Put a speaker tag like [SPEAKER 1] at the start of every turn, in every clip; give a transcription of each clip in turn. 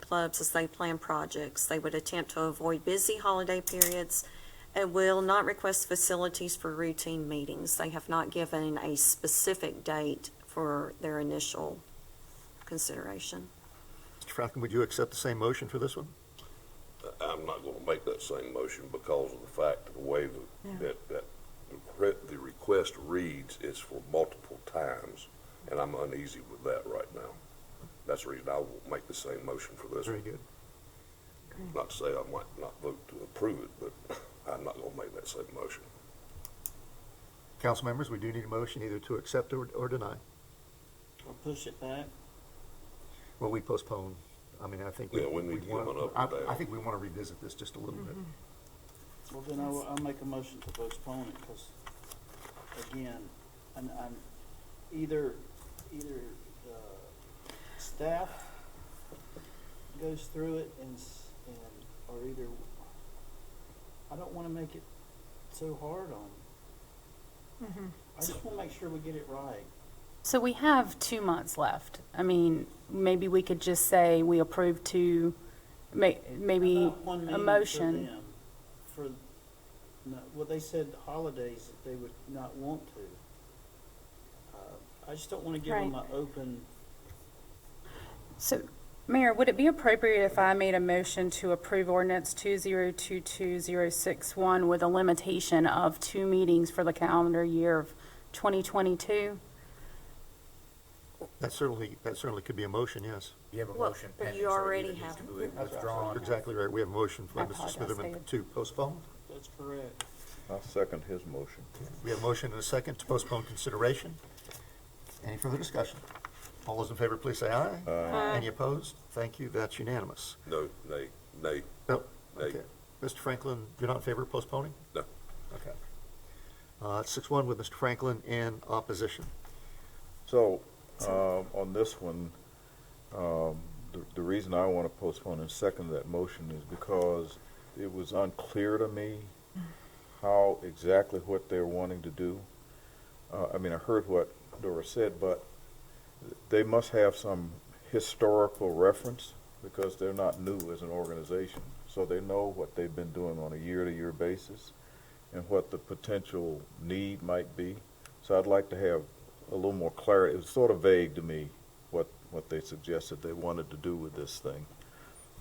[SPEAKER 1] clubs as they plan projects. They would attempt to avoid busy holiday periods and will not request facilities for routine meetings. They have not given a specific date for their initial consideration.
[SPEAKER 2] Mr. Falcon, would you accept the same motion for this one?
[SPEAKER 3] I'm not going to make that same motion because of the fact of the way
[SPEAKER 1] Yeah.
[SPEAKER 3] that, that, that the re- the request reads is for multiple times, and I'm uneasy with that right now. That's the reason I won't make the same motion for this
[SPEAKER 2] Very
[SPEAKER 3] one.
[SPEAKER 2] good.
[SPEAKER 3] Not to say I might not vote to approve it, but I'm not going to make that same motion.
[SPEAKER 2] Council members, we do need a motion either to accept or, or deny.
[SPEAKER 4] I'll push it back.
[SPEAKER 2] Well, we postpone. I mean, I think.
[SPEAKER 3] Yeah, we need to get
[SPEAKER 2] wanna-
[SPEAKER 3] one up
[SPEAKER 2] I-
[SPEAKER 3] and down.
[SPEAKER 2] I think we want to revisit this just a little bit.
[SPEAKER 4] Well, then I'll, I'll make a motion to postpone it, because, again, I'm, I'm, either, either, uh, staff goes through it and, s- and, or either, I don't wanna make it so hard on. 'em. I just wanna make sure we get it right.
[SPEAKER 5] So we have two months left. I mean, maybe we could just say we approve two, may, maybe
[SPEAKER 4] About Uh, one
[SPEAKER 5] a
[SPEAKER 4] meeting for
[SPEAKER 5] motion.
[SPEAKER 4] them, For, no, well, they said holidays that they would not want to. Uh, I just don't wanna give them an
[SPEAKER 5] Right.
[SPEAKER 4] open,
[SPEAKER 5] So, Mayor, would it be appropriate if I made a motion to approve ordinance two zero two two zero six one with a limitation of two meetings for the calendar year of twenty twenty-two?
[SPEAKER 2] That certainly, that certainly could be a motion, yes.
[SPEAKER 6] You have a
[SPEAKER 1] Well,
[SPEAKER 6] motion
[SPEAKER 1] but
[SPEAKER 6] pending.
[SPEAKER 1] you
[SPEAKER 6] so it
[SPEAKER 1] already
[SPEAKER 6] either needs
[SPEAKER 1] have-
[SPEAKER 6] to be
[SPEAKER 2] You're
[SPEAKER 6] Withdrawn.
[SPEAKER 2] exactly right. We have a motion by
[SPEAKER 5] I
[SPEAKER 2] Mr.
[SPEAKER 5] apologize,
[SPEAKER 2] Smitherman
[SPEAKER 5] David.
[SPEAKER 2] to postpone.
[SPEAKER 4] that's correct.
[SPEAKER 7] I'll second his motion.
[SPEAKER 2] We have a motion and a second to postpone consideration. Any further discussion? All those in favor, please say aye.
[SPEAKER 1] Aye.
[SPEAKER 2] Any opposed? Thank you. That's unanimous.
[SPEAKER 3] No, nay, nay,
[SPEAKER 2] No,
[SPEAKER 3] nay.
[SPEAKER 2] okay. Mr. Franklin, you're not in favor of postponing?
[SPEAKER 3] No.
[SPEAKER 2] Okay. Uh, six one with Mr. Franklin in opposition.
[SPEAKER 7] So, um, on this one, um, the, the reason I want to postpone and second that motion is because it was unclear to me how exactly what they're wanting to do. Uh, I mean, I heard what Dora said, but they must have some historical reference because they're not new as an organization. So they know what they've been doing on a year-to-year basis and what the potential need might be. So I'd like to have a little more clarity. It was sort of vague to me what, what they suggested they wanted to do with this thing.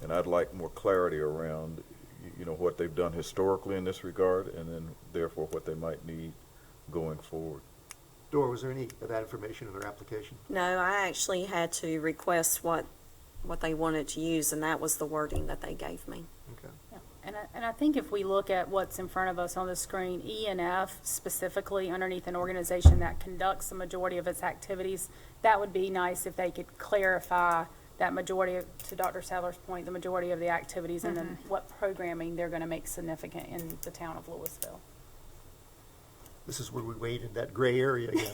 [SPEAKER 7] And I'd like more clarity around, y- you know, what they've done historically in this regard and then therefore what they might need going forward.
[SPEAKER 2] Dora, was there any of that information in their application?
[SPEAKER 1] No, I actually had to request what, what they wanted to use, and that was the wording that they gave me.
[SPEAKER 2] Okay.
[SPEAKER 5] And I, and I think if we look at what's in front of us on the screen, E and F specifically underneath an organization that conducts the majority of its activities, that would be nice if they could clarify that majority, of- to Dr. Sadler's point, the majority of the activities and then what programming they're gonna make significant in the town of Louisville.
[SPEAKER 2] This is where we wade in that gray area again,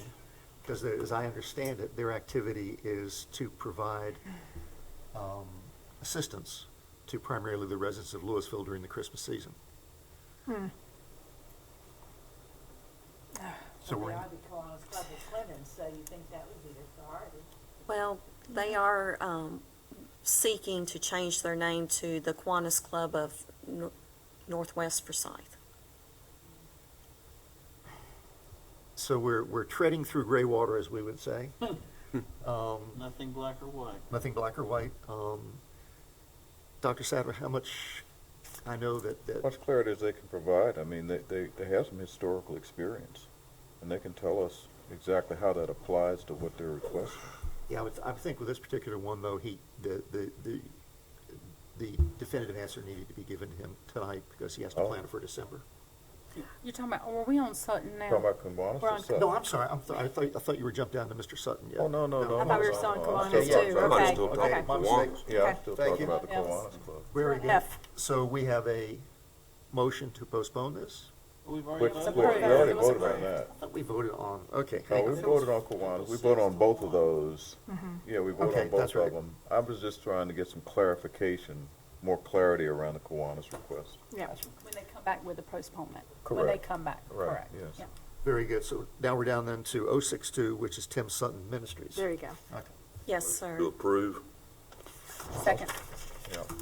[SPEAKER 2] because as I understand it, their activity is to provide um, assistance to primarily the residents of Louisville during the Christmas season. Hmm. So
[SPEAKER 8] Well,
[SPEAKER 2] we're,
[SPEAKER 8] They
[SPEAKER 2] in-
[SPEAKER 8] ought to be calling us Club of Clemens, so you think that would be their priority.
[SPEAKER 1] Well, they are um, seeking to change their name to the Kiwanis Club of Nor- Northwest Forsyth.
[SPEAKER 2] so we're, we're treading through gray water, as we would say. Um,
[SPEAKER 4] Nothing black or white.
[SPEAKER 2] nothing black or white. Um, Dr. Sadler, how much, I know that, that.
[SPEAKER 7] Much clarity as they can provide. I mean, they, they, they have some historical experience and they can tell us exactly how that applies to what they're requesting.
[SPEAKER 2] Yeah, I would, I think with this particular one, though, he, the, the, the, the definitive answer needed to be given to him tonight because he has to
[SPEAKER 7] Oh.
[SPEAKER 2] plan for December.
[SPEAKER 5] You're talking about, or are we on Sutton now?
[SPEAKER 7] Talking about Kiwanis
[SPEAKER 5] We're on-
[SPEAKER 7] or Sutton?
[SPEAKER 2] No, I'm sorry, I'm, th- I thought, I thought you were jumped down to Mr. Sutton, yeah.
[SPEAKER 7] Oh, no, no, no. Oh,
[SPEAKER 5] I thought we were still on Kiwanis
[SPEAKER 2] yeah,
[SPEAKER 5] too,
[SPEAKER 2] yeah.
[SPEAKER 3] I'm
[SPEAKER 5] okay,
[SPEAKER 3] still talking
[SPEAKER 5] okay.
[SPEAKER 2] My
[SPEAKER 3] Kiwanis.
[SPEAKER 2] mistake.
[SPEAKER 7] Yeah, I'm still
[SPEAKER 2] Thank
[SPEAKER 7] talking
[SPEAKER 2] you.
[SPEAKER 7] about the
[SPEAKER 5] Yes.
[SPEAKER 7] Kiwanis Club.
[SPEAKER 2] Very good.
[SPEAKER 5] F.
[SPEAKER 2] So we have a motion to postpone this?
[SPEAKER 4] We've already
[SPEAKER 7] Which,
[SPEAKER 4] voted.
[SPEAKER 7] which, we already voted on that.
[SPEAKER 2] I thought we voted on, okay.
[SPEAKER 7] No,
[SPEAKER 2] hang
[SPEAKER 7] Oh, we
[SPEAKER 2] on.
[SPEAKER 7] voted on Kiwanis. We voted on both of those. Yeah, we voted
[SPEAKER 2] Okay,
[SPEAKER 7] on both
[SPEAKER 2] that's right.
[SPEAKER 7] of them. I was just trying to get some clarification, more clarity around the Kiwanis request.
[SPEAKER 5] When they come back with the postponement, when they
[SPEAKER 7] Correct.
[SPEAKER 5] come back,
[SPEAKER 7] Right,
[SPEAKER 5] correct.
[SPEAKER 7] yes.
[SPEAKER 5] Yeah.
[SPEAKER 2] Very good, so now we're down then to 062, which is Tim Sutton Ministries.
[SPEAKER 5] There you go,
[SPEAKER 2] Okay.
[SPEAKER 1] Yes, sir.
[SPEAKER 3] To approve?
[SPEAKER 5] second.